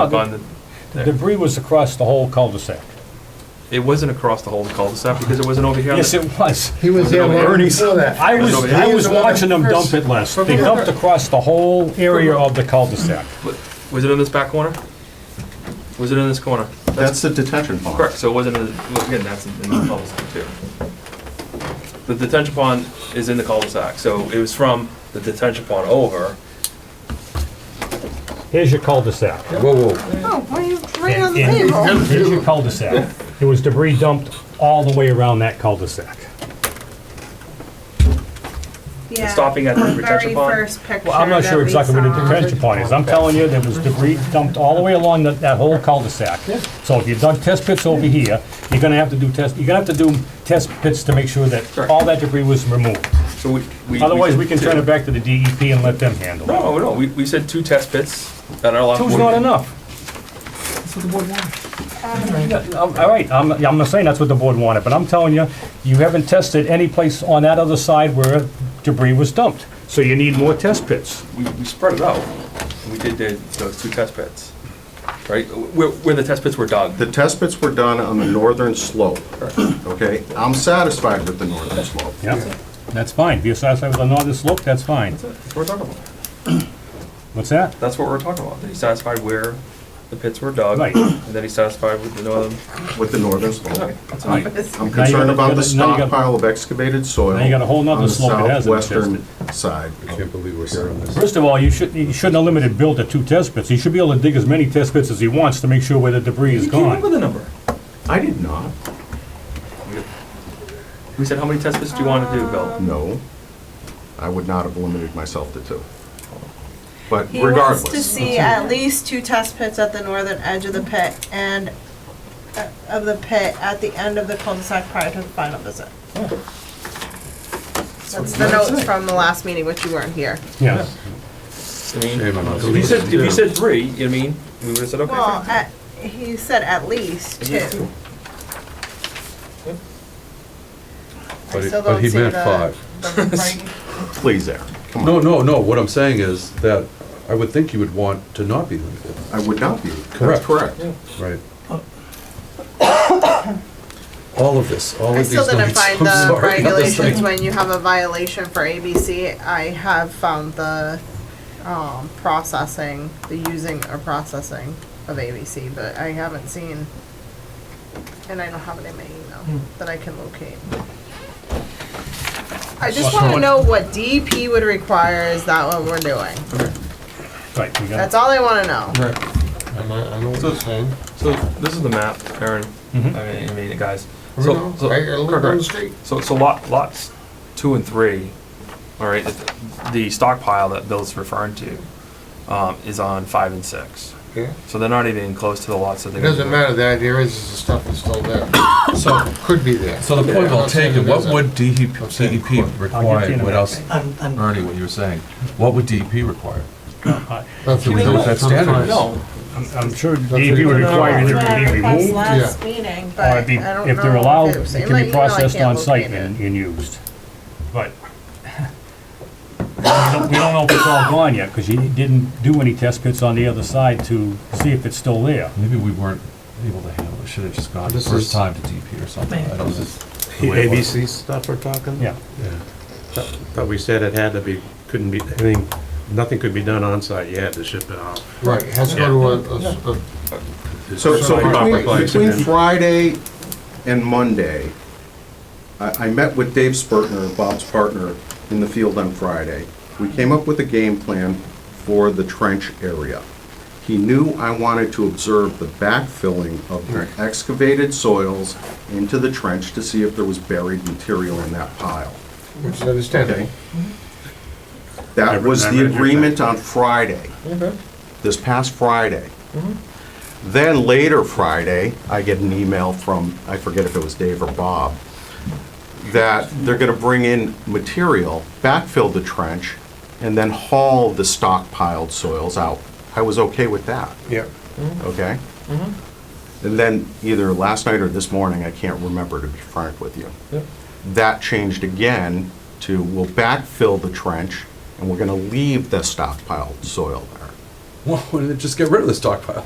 up on the- The debris was across the whole cul-de-sac. It wasn't across the whole cul-de-sac because it wasn't over here. on Yes, the- it was. He was Was it there over long Ernie's? before that. I was, Nobody- I was watching them dump it last. They dumped across the whole area of the cul-de-sac. Wa- Was it in this back corner? Was it in this corner? That's the detention pond. Correct, so it wasn't, in the- well, again, that's in in the cul-de-sac too. The detention pond is in the cul-de-sac, so it was from the detention pond over. Here's your cul-de-sac. Whoa, whoa. Oh, why are you right on And- the and table? Here's your cul-de-sac. There was debris dumped all the way around that cul-de-sac. Stopping at the Very detention pond? first picture Well, I'm not that sure we exactly what the saw. detention pond is. I'm telling you, there was debris dumped all the way along that, that whole cul-de-sac. So if you dug test pits over here, you're gonna have to do test, you're gonna have to do test pits to make sure that Correct. all that debris was removed. So we- we. Otherwise, we said can turn two. it back to the DEP and let them handle it. No, no, we, we said two test pits that are allowed. Two's not enough. That's what the board wanted. All right, I'm, I'm not saying that's what the board wanted, but I'm telling you, you haven't tested any place on that other side where debris was dumped. So you need more test pits. We, we spread it out. We did the- those two test pits, right? Where, where the test pits were dug. The test pits were done on the northern slope, okay? I'm satisfied with the northern slope. Yeah, that's fine. If you're satisfied with the northern slope, that's fine. That's what we're talking about. What's that? That's what we're talking about. He's satisfied where the pits were dug. Right. And then he's satisfied with the northern. With the northern slope. Okay, that's Right. fine. I'm concerned about the Now you got- stockpile of excavated soil. Now you got a whole nother slope that hasn't been On the southwestern side. I can't believe we're hearing this. First of all, you shouldn't, you shouldn't have limited Bill to two test pits. He should be able to dig as many test pits as he wants to make sure where the debris is You came up gone. with a number. I did not, We said, how many test pits do you want to do, Bill? no. I would not have limited myself to two. But He wants to regardless, see at least two test pits at the northern edge of the pit and uh, of the pit at the end of the cul-de-sac prior to the final visit. That's the notes from the last meeting, which you weren't here. Yeah. I mean, Shame on us. if you said, if you said three, you know what I mean, we would have said, okay. Well, fine. at- he said at least At least two. But I he- still but don't he see meant the- five. the writing. please, Eric, come on. No, no, no, what I'm saying is that I would think you would want to not be limited, I would not be. That's Correct. correct. right? All of this, all I of these still didn't numbers, find I'm the sorry. regulations when you have a violation for ABC. I have found the, um, processing, the using or processing of ABC, but I haven't seen, and I don't have it in my email that I can locate. I just wanna know what DEP would require, is that what we're doing? Right, we got it. That's all I wanna know. Am I, I know what So- you're saying. So this is the map, Aaron, I mean, I mean, guys. So, so- Right, I live down the correct. street. So, so lot, lots two and three, all right, the- the stockpile that Bill's referring to, um, is on five and six. Yeah. So they're not even close to the lots that they. It doesn't matter, the idea is, is the stuff is still there, so it could be there. So the point well taken, what would E DEP, I'm saying DEP I'll get you in require, a what minute. else, Ernie, what you were saying, what would DEP require? That's what we Those don't- that standard is. No, I'm- I'm sure DEP would require That's either what I it be requested removed last meeting, but or I it be, don't know. if they're allowed, was it in my can be email, I processed can't on site locate it. and, and used. But we don't we don't know if it's all gone yet, because you didn't do any test pits on the other side to see if it's still there. Maybe we weren't able to handle it, should have just gone the This first is- time to DEP or something, I don't know. ABC stuff we're talking? Yeah. But we said it had to be, couldn't be, anything, nothing could be done on site. you had to ship it out. Right, it has to go to a- a, a, So, so Proper between, place between and then- Friday and Monday, I, I met with Dave Spurtner, Bob's partner, in the field on Friday. We came up with a game plan for the trench area. He knew I wanted to observe the backfilling of the excavated soils into the trench to see if there was buried material in that pile. which is understandable. That was I the read your agreement on Friday, this past Friday. Then later Friday, I get an email from, I forget if it was Dave or Bob, that they're gonna bring in material, backfill the trench, and then haul the stockpiled soils out. I was okay with that, Yeah. okay? And then either last night or this morning, I can't remember to be frank with you that changed again to we'll backfill the trench and we're gonna leave the stockpiled soil there. Why didn't they just get rid of the stockpile?